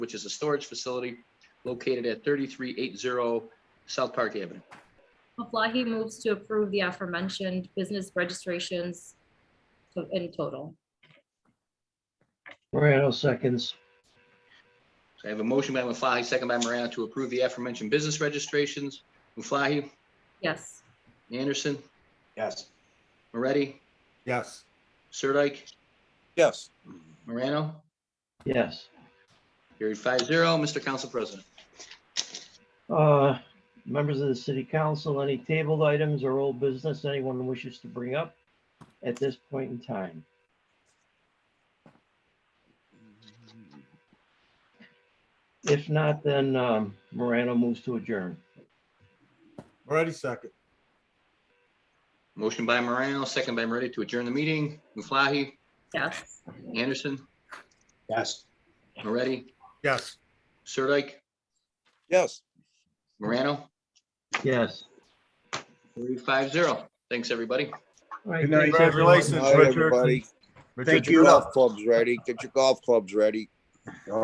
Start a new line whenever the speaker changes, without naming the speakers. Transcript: which is a storage facility located at 3380 South Park Avenue.
Maflahe moves to approve the aforementioned business registrations to- in total.
Morano seconds.
So I have a motion by Muflahi, second by Morano to approve the aforementioned business registrations. Muflahi,
Yes,
Anderson,
Yes.
Moretti,
Yes.
Sirdike,
Yes.
Morano.
Yes.
Carried five zero. Mr. Council President.
Uh, Members of the city council, any tabled items or old business anyone wishes to bring up at this point in time? If not, then um, Morano moves to adjourn.
Moretti second.
Motion by Morano, second by Moretti to adjourn the meeting. Muflahi,
yes,
Anderson,
Yes.
Moretti,
Yes.
Sirdike,
Yes.
Morano.
Yes.
Carried five zero. Thanks, everybody.
All right,
Good night.
thanks, everyone.
Congratulations,
All right,
Richard.
everybody.
Richard,
Get
you're
your
up.
golf clubs ready. Get your golf clubs ready.